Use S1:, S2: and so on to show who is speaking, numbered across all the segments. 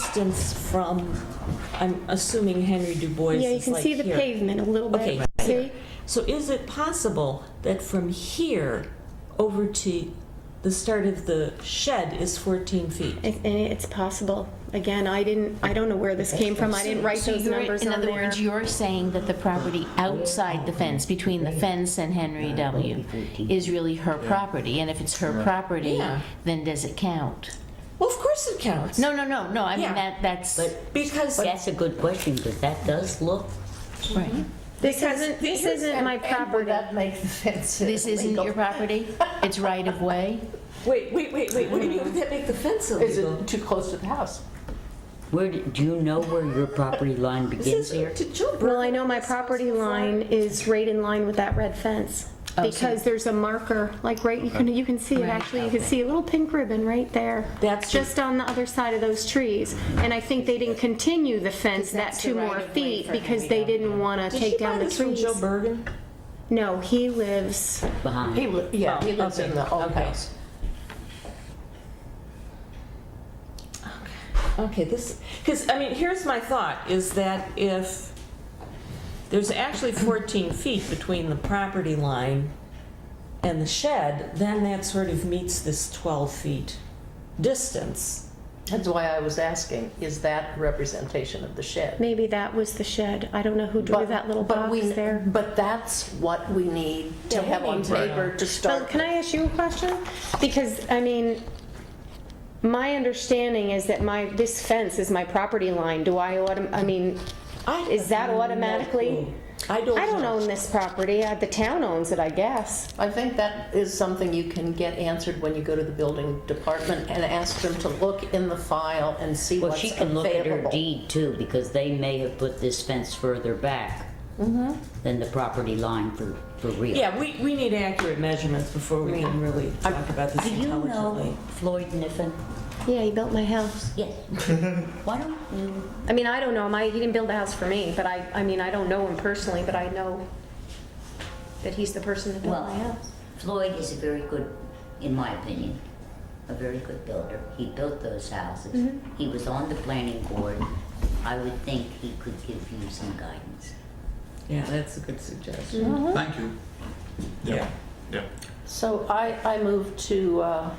S1: distance from, I'm assuming Henry Du Bois
S2: Yeah, you
S1: is
S2: can
S1: like
S2: see the
S1: here.
S2: pavement a little
S1: Okay,
S2: bit.
S1: right
S2: See?
S1: So is it possible that from here over to the start of the shed is 14 feet?
S2: I- And it's possible. Again, I didn't, I don't know where this came from. I didn't write
S3: So
S2: those
S3: you're-
S2: numbers
S3: In
S2: on
S3: other
S2: there.
S3: words, you're saying that the property outside the fence, between the fence and Henry W., is really her property, and if it's her property,
S1: Yeah.
S3: then does it count?
S1: Well, of course it counts.
S3: No, no, no, no, I mean,
S1: Yeah.
S3: that, that's,
S4: But-
S1: Because
S4: But That's a good question, because that does look,
S3: right.
S2: This isn't, this isn't my property.
S5: make the fence.
S3: This isn't your property? It's right of way?
S1: Wait, wait, wait, wait. What do you mean? Would that make the fence
S5: Is
S1: illegal?
S5: it too close to the house?
S4: where, do do you know where your property line
S1: This
S4: begins here?
S1: is to children.
S2: Well, I know my property line is right in line with that red fence.
S3: Oh, so-
S2: Because there's a marker, like right, you can, you can see it, actually, you can see a little pink ribbon right there.
S1: That's-
S2: Just on the other side of those trees. And I think they didn't continue the fence that
S3: that's the
S2: two more
S3: right of way
S2: feet
S3: for
S2: because
S3: Henry
S2: they
S3: Dow.
S2: didn't want to
S1: Did
S2: take
S1: she buy
S2: down the
S1: this from
S2: trees.
S1: Joe Bergen?
S2: No, he lives,
S4: Behind,
S5: He, li- yeah, he lives in the old house.
S1: Okay, this, because, I mean, here's my thought, is that if, there's actually 14 feet between the property line and the shed, then that sort of meets this 12 feet distance.
S5: That's why I was asking, is that representation of the shed?
S2: maybe that was the shed. I don't know who drew
S5: But-
S2: that little
S5: but
S2: box
S5: we-
S2: there.
S5: But that's what we need to
S1: Yeah, we
S5: have on
S1: need to know.
S5: paper to
S2: Well,
S5: start.
S2: can I ask you a question? Because, I mean, my understanding is that my, this fence is my property line. Do I, autom- I mean,
S1: I-
S2: is that automatically?
S1: I don't
S2: I don't
S1: know.
S2: own this property. Uh, The town owns it, I guess.
S5: I think that is something you can get answered when you go to the building department and ask them to look in the file and see
S4: well,
S5: what's
S4: she can look at her
S5: available.
S4: deed too, because they may have put this fence further back than the property line for, for real.
S1: Yeah, we, we need accurate measurements before we can really talk about this
S4: Do you know
S1: intelligently.
S4: Floyd Niffen?
S2: Yeah, he built my house.
S4: Yes. Why don't you,
S2: I mean, I don't know him. I, he didn't build the house for me, but I, I mean, I don't know him personally, but I know that he's the person that built
S4: well,
S2: my house.
S4: Floyd is a very good, in my opinion, a very good builder. He built those houses. He was on the planning board. I would think he could give you some guidance.
S1: Yeah, that's a good suggestion.
S6: Thank you. Yeah. Yeah.
S5: So I, I move to uh,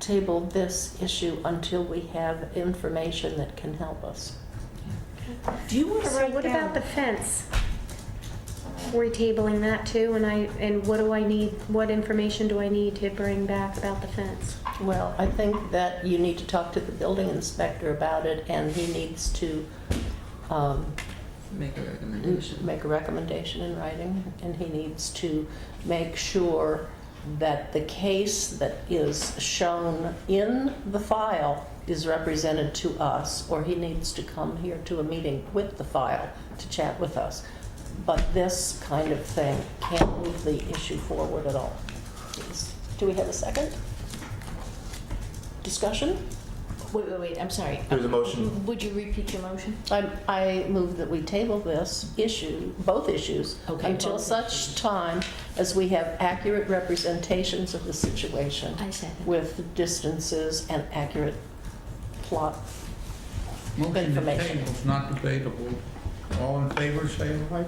S5: table this issue until we have information that can help us.
S1: Do you want to
S2: So
S1: write
S2: what
S1: down?
S2: about the fence? We're tabling that too, and I, and what do I need, what information do I need to bring back about the fence?
S5: Well, I think that you need to talk to the building inspector about it, and he needs to um,
S6: Make a recommendation.
S5: make a recommendation in writing, and he needs to make sure that the case that is shown in the file is represented to us, or he needs to come here to a meeting with the file to chat with us. But this kind of thing can't move the issue forward at all. Please. Do we have a second? Discussion?
S3: Wait, wait, wait, I'm sorry.
S6: There's a motion.
S3: Would you repeat your motion?
S5: I, I move that we table this issue, both issues,
S3: Okay.
S5: until such time as we have accurate representations of the situation
S3: I second.
S5: with distances and accurate plot.
S6: Motion to
S5: Information.
S6: table is not debatable. All in favor, say aye.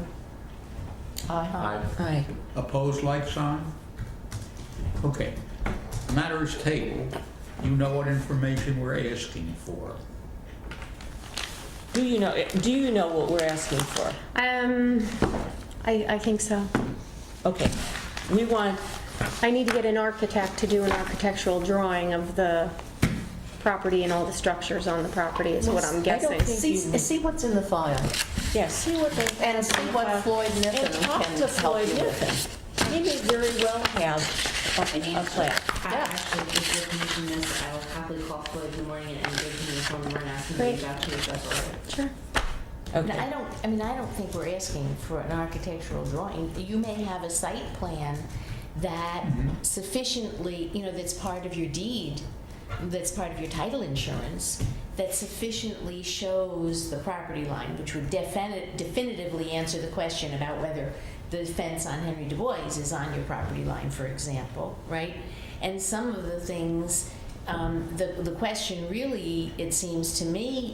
S5: Aye.
S1: Aye.
S6: Opposed, like sign? Okay. Matter is tabled. You know what information we're asking for.
S1: Do you know, do you know what we're asking for?
S2: Um, I, I think so.
S1: Okay, we want
S2: I need to get an architect to do an architectural drawing of the property and all the structures on the property is what I'm guessing.
S5: See, see what's in the file
S1: Yes.
S5: and see what Floyd Niffen
S1: And talk
S5: can
S1: to
S5: help
S1: Floyd
S5: you with.
S1: Niffen. He may very well have a- a plan.
S7: I actually did give him this, I will probably call Floyd in the morning and give him the phone number and ask him to
S2: Great.
S7: reach out to you if that's all right.
S3: No, I
S1: Okay,
S3: don't, I mean, I don't think we're asking for an architectural drawing. You may have a site plan that sufficiently, you know, that's part of your deed, that's part of your title insurance, that sufficiently shows the property line, which would defini- definitively answer the question about whether the fence on Henry Du Bois is on your property line, for example, right? And some of the things um, the, the question really, it seems to me,